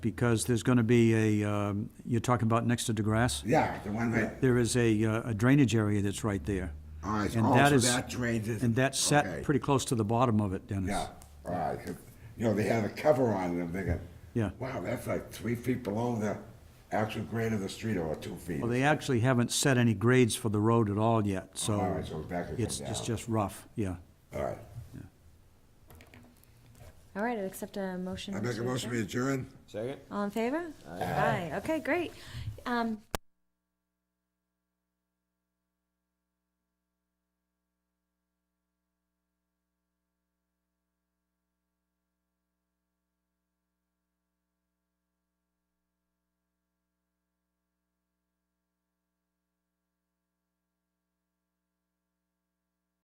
because there's going to be a, um, you're talking about next to DeGrasse? Yeah, the one that, There is a uh, a drainage area that's right there. all right, And oh, that so is- that drains it. And that's set Okay. pretty close to the bottom of it, Dennis. Yeah, all right, 'cause, you know, they had a cover on it, I'm thinking. Yeah. Wow, that's like three feet below the actual grade of the street or two feet. Well, they actually haven't set any grades for the road at all yet, so. All right, so it's back and It's come it's down. just rough, yeah. All right. All right, I'd accept a motion. I make a to motion adjourn. to adjourn? Second? All in favor? Aye. Okay, great. Um,